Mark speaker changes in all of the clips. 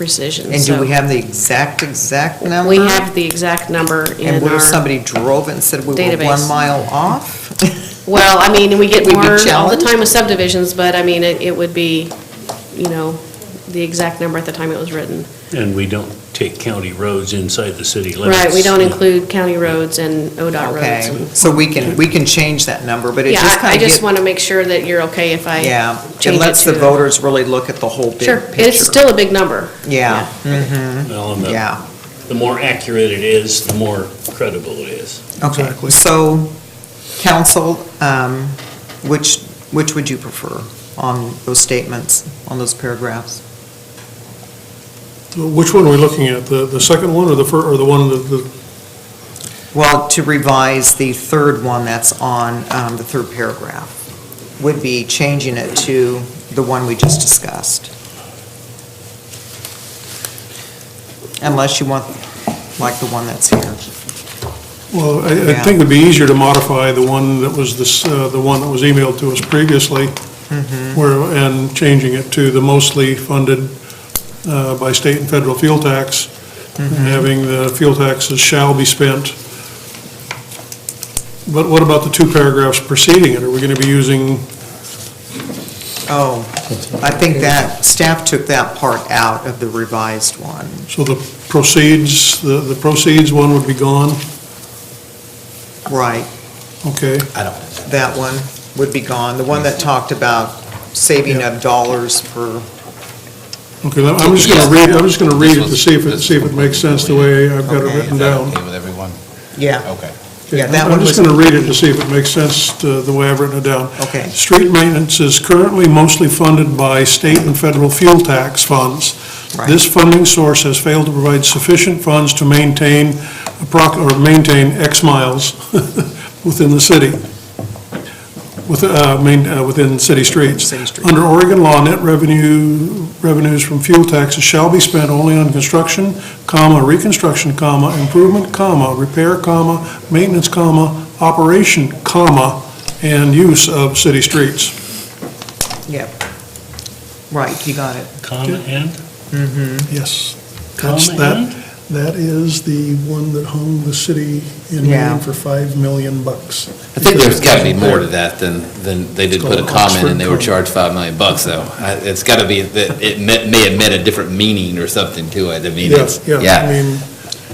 Speaker 1: precision.
Speaker 2: And do
Speaker 1: so
Speaker 2: we have the exact, exact number?
Speaker 1: We have the exact number
Speaker 2: And
Speaker 1: in
Speaker 2: what
Speaker 1: our,
Speaker 2: if somebody drove it and said we were one
Speaker 1: database.
Speaker 2: mile off?
Speaker 1: well, I mean, we get
Speaker 2: We'd be
Speaker 1: more all the
Speaker 2: challenged?
Speaker 1: time with subdivisions, but I mean, it, it would be, you know, the exact number at the time it was written.
Speaker 3: And we don't take county roads inside the city limits.
Speaker 1: Right, we don't include county roads and ODOT roads.
Speaker 2: Okay,
Speaker 1: and-
Speaker 2: so we can, we can change that number, but it
Speaker 1: Yeah,
Speaker 2: just
Speaker 1: I- I
Speaker 2: kind of
Speaker 1: just
Speaker 2: gets,
Speaker 1: want to make sure that you're okay if I
Speaker 2: yeah.
Speaker 1: change it
Speaker 2: It lets the
Speaker 1: to-
Speaker 2: voters really look at the whole big
Speaker 1: Sure,
Speaker 2: picture.
Speaker 1: it's still a big number.
Speaker 2: Yeah,
Speaker 3: Well, and the,
Speaker 2: yeah,
Speaker 3: the more accurate it is, the more credible it is.
Speaker 2: okay. So, council, um, which, which would you prefer on those statements, on those paragraphs?
Speaker 4: Which one are we looking at? The, the second one or the fir, or the one that, the,
Speaker 2: Well, to revise the third one that's on um, the third paragraph, would be changing it to the one we just discussed. Unless you want, like the one that's here.
Speaker 4: well, I, I
Speaker 2: Yeah.
Speaker 4: think it'd be easier to modify the one that was this, uh, the one that was emailed to us previously. Where, and changing it to the mostly funded, uh, by state and federal fuel tax. and Having the fuel taxes shall be spent. But what about the two paragraphs preceding it? Are we gonna be using,
Speaker 2: Oh, I think that, staff took that part out of the revised one.
Speaker 4: so the proceeds, the, the proceeds one would be gone?
Speaker 2: Right,
Speaker 4: Okay,
Speaker 2: that one would be gone. The one that talked about saving of dollars per,
Speaker 4: okay, I'm just gonna read, I'm just gonna read it to see if it, see if it makes sense the way I've got it
Speaker 2: Okay.
Speaker 4: written
Speaker 5: Is that
Speaker 4: down.
Speaker 5: okay with everyone?
Speaker 2: yeah,
Speaker 5: Okay.
Speaker 2: Yeah, that one
Speaker 4: I'm just
Speaker 2: was-
Speaker 4: going to read it to see if it makes sense to the way I've written it down.
Speaker 2: Okay.
Speaker 4: Street maintenance is currently mostly funded by state and federal fuel tax funds.
Speaker 2: Right.
Speaker 4: This funding source has failed to provide sufficient funds to maintain, approx- or maintain X miles within the city, with, uh, main- uh, within city streets.
Speaker 2: City streets.
Speaker 4: Under Oregon law, net revenue, revenues from fuel taxes shall be spent only on construction, comma, reconstruction, comma, improvement, comma, repair, comma, maintenance, comma, operation, comma, and use of city streets.
Speaker 2: yep. Right, you got it. Mm-hmm.
Speaker 3: Comma and,
Speaker 4: Yes.
Speaker 3: comma
Speaker 4: That's that,
Speaker 3: and?
Speaker 4: that is the one that hung the city in
Speaker 2: Yeah.
Speaker 4: Maine for 5 million bucks.
Speaker 5: I think there's got to be more to that than, than, they did put a comment and they were charged 5 million bucks, though. I- It's got to be, that it me- may have meant a different meaning or something to it, I mean,
Speaker 4: Yeah,
Speaker 5: it's,
Speaker 4: yeah, I
Speaker 5: yeah.
Speaker 4: mean,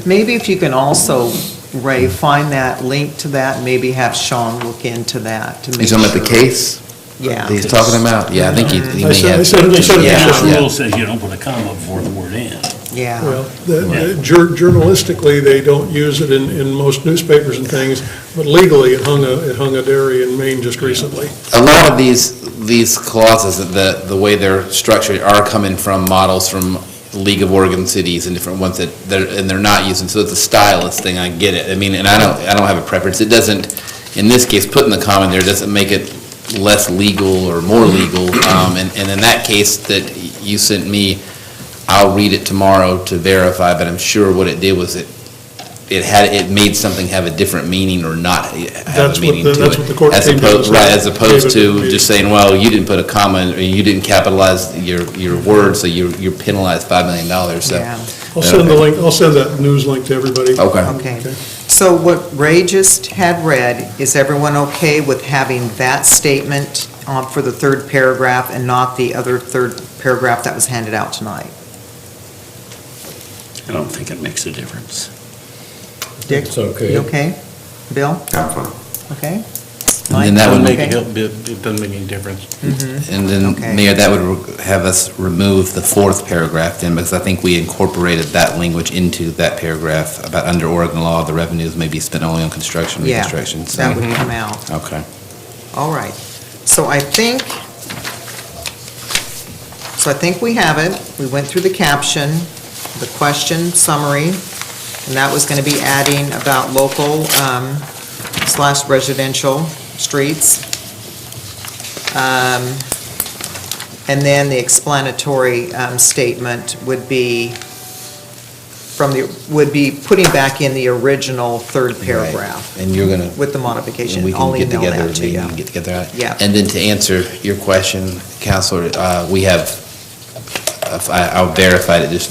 Speaker 2: Maybe if you can also, Ray, find that link to that, maybe have Sean look into that to make
Speaker 5: He's
Speaker 2: sure.
Speaker 5: talking about the case that
Speaker 2: Yeah,
Speaker 5: he's talking about? Yeah, I think he he
Speaker 4: I
Speaker 5: may
Speaker 4: said- I
Speaker 5: have.
Speaker 4: said- I said-
Speaker 5: Yeah,
Speaker 3: This
Speaker 5: yeah.
Speaker 3: rule says you don't put a comma before the word and.
Speaker 2: yeah,
Speaker 4: well, the- the- jour- journalistically, they don't use it in, in most newspapers and things, but legally, it hung a, it hung a dairy in Maine just recently.
Speaker 5: A lot of these, these clauses, the, the way they're structured are coming from models from League of Oregon Cities and different ones that, they're and they're not using, so it's a stylist thing, I get it. I mean, and I don't, I don't have a preference. It doesn't, in this case, putting the comma there doesn't make it less legal or more legal. Um, and, and in that case that you sent me, I'll read it tomorrow to verify, but I'm sure what it did was it, it had, it made something have a different meaning or not have
Speaker 4: That's what
Speaker 5: a meaning to
Speaker 4: the-
Speaker 5: it.
Speaker 4: that's what the court
Speaker 5: As
Speaker 4: came to
Speaker 5: opposed-
Speaker 4: us
Speaker 5: Right,
Speaker 4: with.
Speaker 5: as opposed
Speaker 4: David
Speaker 5: to
Speaker 4: Reed.
Speaker 5: just saying, well, you didn't put a comma, or you didn't capitalize your, your word, so you're, you're penalized $5 million, so.
Speaker 2: yeah.
Speaker 4: I'll send the link, I'll send that news link to everybody.
Speaker 5: Okay.
Speaker 2: Okay. So what Ray just had read, is everyone okay with having that statement uh, for the third paragraph and not the other third paragraph that was handed out tonight?
Speaker 3: I don't think it makes a difference.
Speaker 2: Dick?
Speaker 6: It's okay.
Speaker 2: You okay? Bill? Okay?
Speaker 5: And then that would
Speaker 2: Mike,
Speaker 5: make,
Speaker 2: okay?
Speaker 6: it doesn't make any difference.
Speaker 5: and
Speaker 2: Okay.
Speaker 5: then, Mayor, that would re- have us remove the fourth paragraph then, because I think we incorporated that language into that paragraph about under Oregon law, the revenues may be spent only on construction,
Speaker 2: Yeah,
Speaker 5: reconstruction, so.
Speaker 2: That would come out.
Speaker 5: Okay.
Speaker 2: All right. So I think, so I think we have it. We went through the caption, the question summary, and that was going to be adding about local um, slash residential streets. Um, And then the explanatory um, statement would be from the, would be putting back in the original third paragraph
Speaker 5: And you're gonna
Speaker 2: with the
Speaker 5: And
Speaker 2: modification.
Speaker 5: we
Speaker 2: I'll
Speaker 5: can get
Speaker 2: email
Speaker 5: together,
Speaker 2: that to
Speaker 5: maybe we
Speaker 2: you.
Speaker 5: can get together. on it.
Speaker 2: Yeah.
Speaker 5: And then to answer uh, your question, Counselor, uh, we have, I I verified it just now.